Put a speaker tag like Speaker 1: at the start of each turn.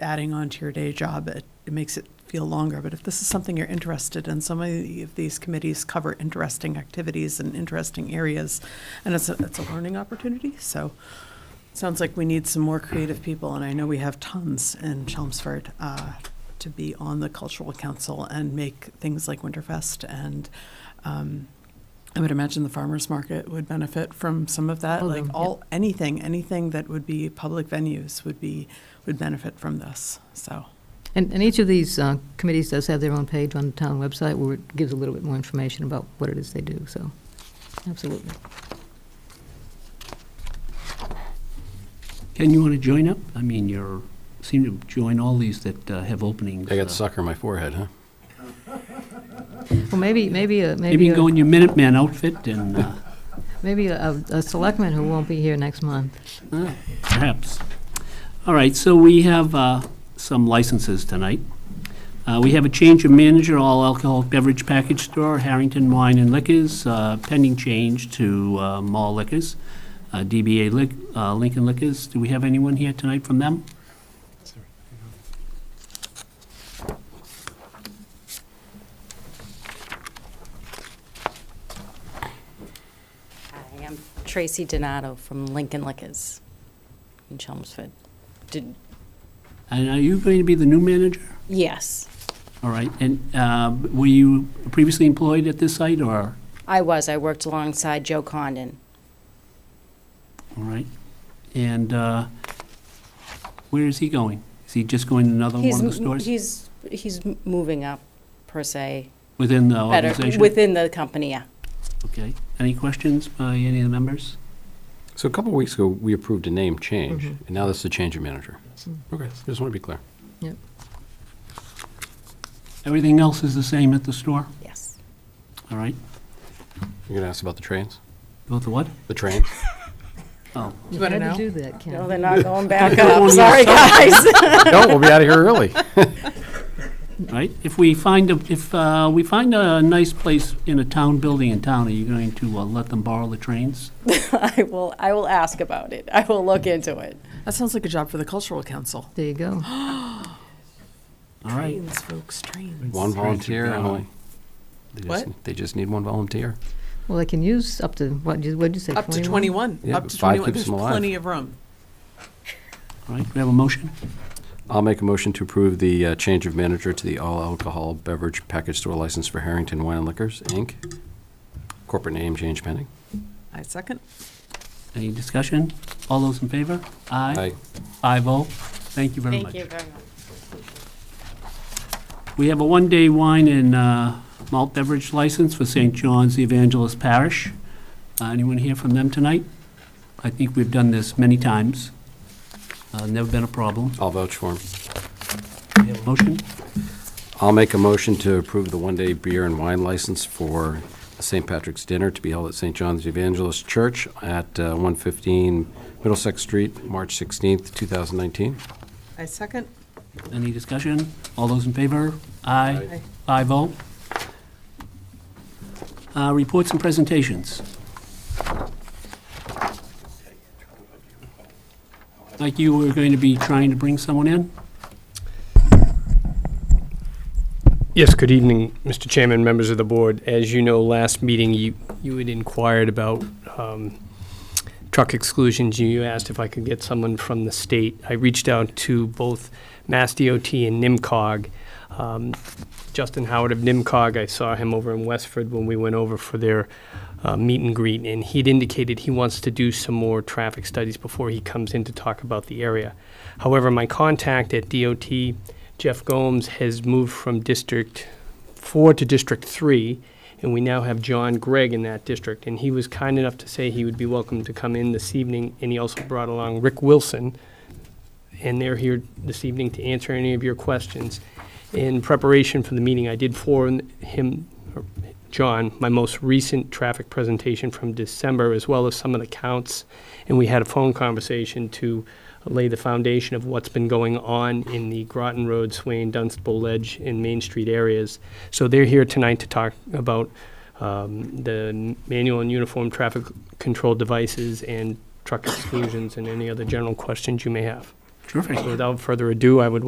Speaker 1: adding on to your day job, it, it makes it feel longer. But if this is something you're interested in, so many of these committees cover interesting activities and interesting areas, and it's a, it's a learning opportunity. So it sounds like we need some more creative people, and I know we have tons in Chelmsford uh, to be on the cultural council and make things like Winterfest and. Um, I would imagine the farmers market would benefit from some of that.
Speaker 2: Oh,
Speaker 1: like
Speaker 2: yeah.
Speaker 1: all anything, anything that would be public venues would be would benefit from this. So
Speaker 2: And, and each of these uh, committees does have their own page on the town website where it gives a little bit more information about what it is they do, so, absolutely.
Speaker 3: Ken, you want to join up? I mean, you're, seem to join all these that uh, have openings.
Speaker 4: I
Speaker 3: uh,
Speaker 4: got sucker in my forehead, huh?
Speaker 2: Well, maybe, maybe, a-
Speaker 3: Maybe
Speaker 2: maybe,
Speaker 3: you can go
Speaker 2: a-
Speaker 3: in your Minuteman outfit and uh,
Speaker 2: maybe a a selectman who won't be here next month.
Speaker 3: perhaps. All right, so we have uh, some licenses tonight. Uh, We have a change of manager, all alcoholic beverage package store, Harrington Wine and Liquors, uh, pending change to uh, Mall Liquors, uh, DBA Lic- uh, Lincoln Liquors. Do we have anyone here tonight from them?
Speaker 5: Hi, I'm Tracy Donato from Lincoln Liquors in Chelmsford. Did,
Speaker 3: And are you going to be the new manager?
Speaker 5: yes,
Speaker 3: All right, and uh, were you previously employed at this site, or?
Speaker 5: I was. I worked alongside Joe Condon.
Speaker 3: All right. And uh, where is he going? Is he just going to another one
Speaker 5: He's
Speaker 3: of the
Speaker 5: m-
Speaker 3: stores
Speaker 5: He's, he's m- moving up, per se,
Speaker 3: within the
Speaker 5: better,
Speaker 3: organization?
Speaker 5: within the company, yeah.
Speaker 3: Okay. Any questions by any of the members?
Speaker 4: So a couple weeks ago, we approved a name change, and now this is a change of manager. Okay, just want to be clear.
Speaker 2: Yep.
Speaker 3: Everything else is the same at the store?
Speaker 5: Yes.
Speaker 3: All right.
Speaker 4: You're going to ask about the trains?
Speaker 3: About the what?
Speaker 4: The trains?
Speaker 3: Oh,
Speaker 2: You
Speaker 1: wanna
Speaker 2: had
Speaker 1: know?
Speaker 2: to do that,
Speaker 5: No,
Speaker 2: Ken.
Speaker 5: they're not going back
Speaker 3: Oh, yeah,
Speaker 5: up. Sorry, guys.
Speaker 4: No, we'll be out of here early.
Speaker 3: right. If we find, a if uh, we find a nice place in a town building in town, are you going to uh, let them borrow the trains?
Speaker 5: I will, I will ask about it. I will look into it.
Speaker 1: that sounds like a job for the cultural council.
Speaker 2: There you go.
Speaker 3: All right.
Speaker 1: Trains, folks, trains.
Speaker 4: One volunteer,
Speaker 3: Trains are
Speaker 4: Emily. They just-
Speaker 1: What?
Speaker 4: They just need one volunteer.
Speaker 2: Well, they can use up to, what, did you say, 21?
Speaker 1: Up to 21.
Speaker 4: Yeah,
Speaker 1: up
Speaker 4: but
Speaker 1: to
Speaker 4: five
Speaker 1: 21.
Speaker 4: keeps
Speaker 1: There's
Speaker 4: them alive.
Speaker 1: plenty of room.
Speaker 3: All right. We have a motion?
Speaker 4: I'll make a motion to approve the uh, change of manager to the all alcohol beverage package store license for Harrington Wine and Liquors, Inc. Corporate name change pending.
Speaker 1: I second.
Speaker 3: Any discussion? All those in favor? Aye. Five oh. Thank you very much.
Speaker 5: Thank you very much.
Speaker 3: We have a one-day wine and uh, malt beverage license for St. John's the Evangelist Parish. Uh, Anyone hear from them tonight? I think we've done this many times. Uh, Never been a problem.
Speaker 4: I'll vouch for him.
Speaker 3: We have a Motion?
Speaker 4: I'll make a motion to approve the one-day beer and wine license for the St. Patrick's Dinner to be held at St. John's Evangelist Church at uh, 115 Middlesex Street, March 16th, 2019.
Speaker 1: I second.
Speaker 3: Any discussion? All those in favor?
Speaker 1: Aye.
Speaker 3: Aye. Five oh. Uh, Reports and presentations. Like you were going to be trying to bring someone in?
Speaker 6: Yes, good evening, Mr. Chairman, members of the board. As you know, last meeting, you, you had inquired about um, truck exclusions. You asked if I could get someone from the state. I reached out to both Mass DOT and NIMCOG. Um, Justin Howard of NIMCOG, I saw him over in Westford when we went over for their uh, meet and greet, and he'd indicated he wants to do some more traffic studies before he comes in to talk about the area. However, my contact at DOT Jeff Gomes has moved from District 4 to District 3, and we now have John Gregg in that district. And he was kind enough to say he would be welcome to come in this evening, and he also brought along Rick Wilson, and they're here this evening to answer any of your questions. In preparation for the meeting, I did forward him, or John, my most recent traffic presentation from December, as well as some of the counts, and we had a phone conversation to lay the foundation of what's been going on in the Groton Road, Swain, Dunstable Ledge, and Main Street areas. So they're here tonight to talk about um, the manual and uniform traffic control devices and truck exclusions and any other general questions you may have.
Speaker 3: Terrific.
Speaker 6: So Without further ado, I would